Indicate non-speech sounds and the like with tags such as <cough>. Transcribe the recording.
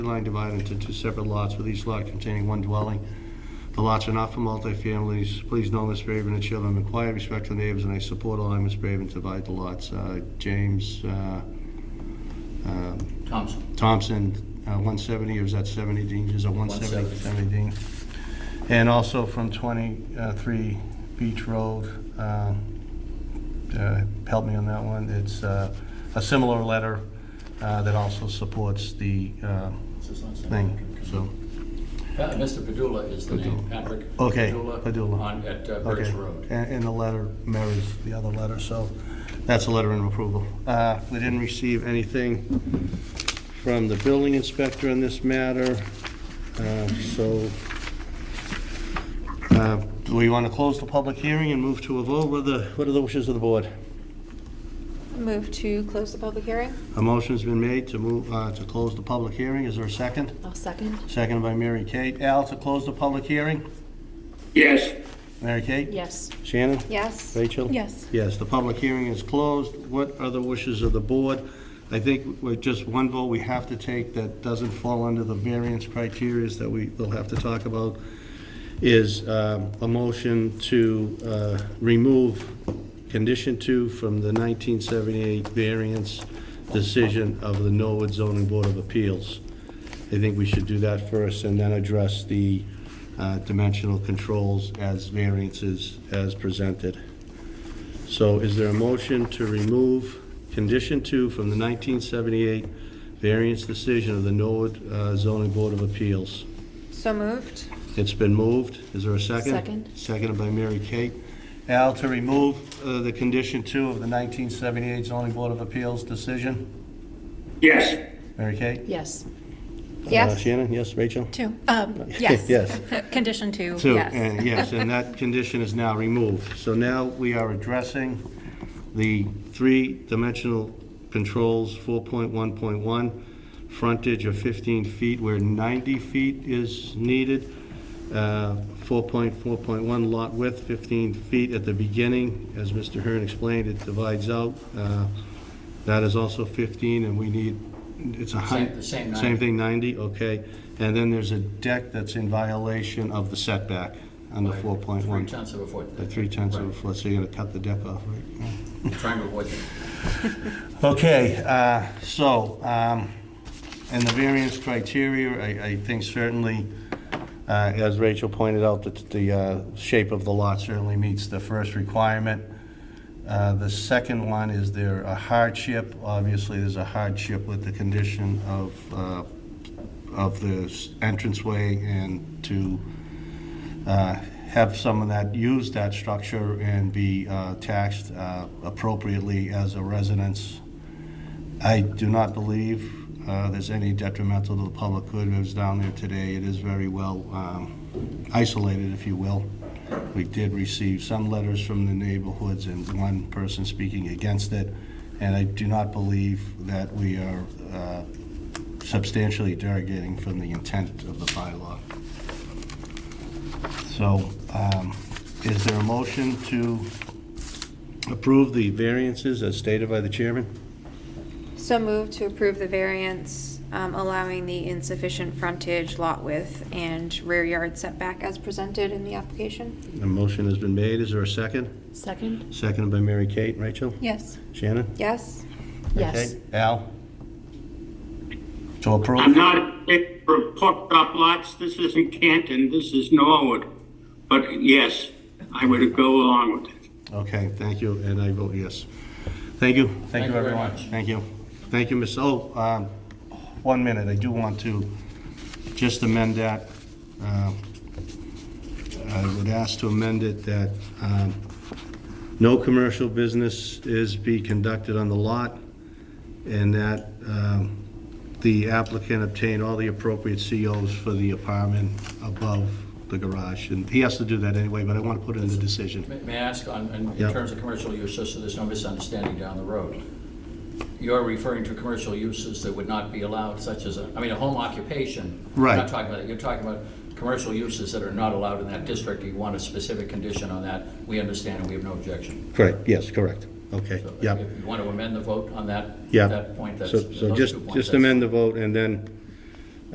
line divided into two separate lots, with each lot containing one dwelling. The lots are not for multifamilies. Please know, Ms. Braven, that you have a quiet respect to neighbors, and I support allowing Ms. Braven to divide the lots. Uh, James uh, uh, Thompson. Thompson, uh, 170, or is that 70 Dean? Is it 170? 70 170. Dean. And also from 23 Beach Road, um, uh, help me on that one. It's uh, a similar letter uh, that also supports the uh, thing, so. Pa- Uh, Mr. Padula is the name, Patrick. Okay, Padula. On, at uh, Birch okay. Road. And and the letter marries the other letter, so that's a letter of approval. Uh, We didn't receive anything from the building inspector on this matter, uh, so uh, do we want to close the public hearing and move to a vote? What are the, what are the wishes of the board? Move to close the public hearing? A motion's been made to move, uh, to close the public hearing. Is there a second? I'll second. Seconded by Mary Kate. Al, to close the public hearing? Yes, Mary Kate? Yes. Shannon? Yes. Rachel? Yes. Yes, the public hearing is closed. What are the wishes of the board? I think with just one vote we have to take that doesn't fall under the variance criteria that we will have to talk about is um, a motion to uh, remove condition two from the 1978 variance decision of the Norwood Zoning Board of Appeals. I think we should do that first and then address the uh, dimensional controls as variances as presented. So is there a motion to remove condition two from the 1978 variance decision of the Norwood uh, zoning board of appeals? So moved? It's been moved. Is there a second? Second. Seconded by Mary Kate. Al, to remove uh, the condition two of the 1978 zoning board of appeals decision? yes, Mary Kate? Yes. Uh, Yes. Shannon, yes, Rachel? Two. <laughs> Um, <laughs> yes. Yes. Condition two, Two, yes. and yes, and that condition is now removed. So now we are addressing the three-dimensional controls, 4.1.1, frontage of 15 feet where 90 feet is needed, uh, 4.4.1 lot width, 15 feet at the beginning, as Mr. Hearn explained, it divides out. Uh, That is also 15, and we need, it's a height. Same- the same 90. Same thing, 90, okay. And then there's a deck that's in violation of the setback under By 4.1. Three tenths of a foot. At three tenths of a Right. foot, so you're gonna cut the deck off, right? Trying to avoid that. Okay, uh, so, um, and the variance criteria, I, I think certainly, uh, as Rachel pointed out, that the uh, shape of the lot certainly meets the first requirement. Uh, The second one, is there a hardship? Obviously, there's a hardship with the condition of, uh, of the s- entranceway and to uh, have someone that use that structure and be uh, taxed uh, appropriately as a residence. I do not believe uh, there's any detrimental to the public good. I was down there today. It is very well um, isolated, if you will. We did receive some letters from the neighborhoods and one person speaking against it. And I do not believe that we are uh, substantially derogating from the intent of the bylaw. So um, is there a motion to approve the variances as stated by the chairman? So moved to approve the variance um, allowing the insufficient frontage, lot width, and rear yard setback as presented in the application? The motion has been made. Is there a second? Second? Seconded by Mary Kate. Rachel? Yes. Shannon? Yes. Yes. Okay. Al? To approve? I'm not in favor of hooked up lots, this isn't Canton, this is Norwood. But yes, I would go along with it. Okay, thank you, and I vote yes. Thank you. Thank you very much. Thank you. Thank you, Ms., oh, um, one minute, I do want to just amend that. Um, I would ask to amend it that um, no commercial business is be conducted on the lot, and that um, the applicant obtain all the appropriate COs for the apartment above the garage. And he has to do that anyway, but I want to put it in the decision. May- May I ask, on, in- Yeah. in terms of commercial use, just so there's no misunderstanding down the road, you're referring to commercial uses that would not be allowed, such as, a- I mean, a home occupation. You're Right. Not talking about that, you're talking about commercial uses that are not allowed in that district. You want a specific condition on that. We understand and we have no objection. Correct, yes, correct. Okay, So yeah, If you want to amend the vote on that, yeah. that point, that's, So- those So just, two points. just that's- amend the vote, and then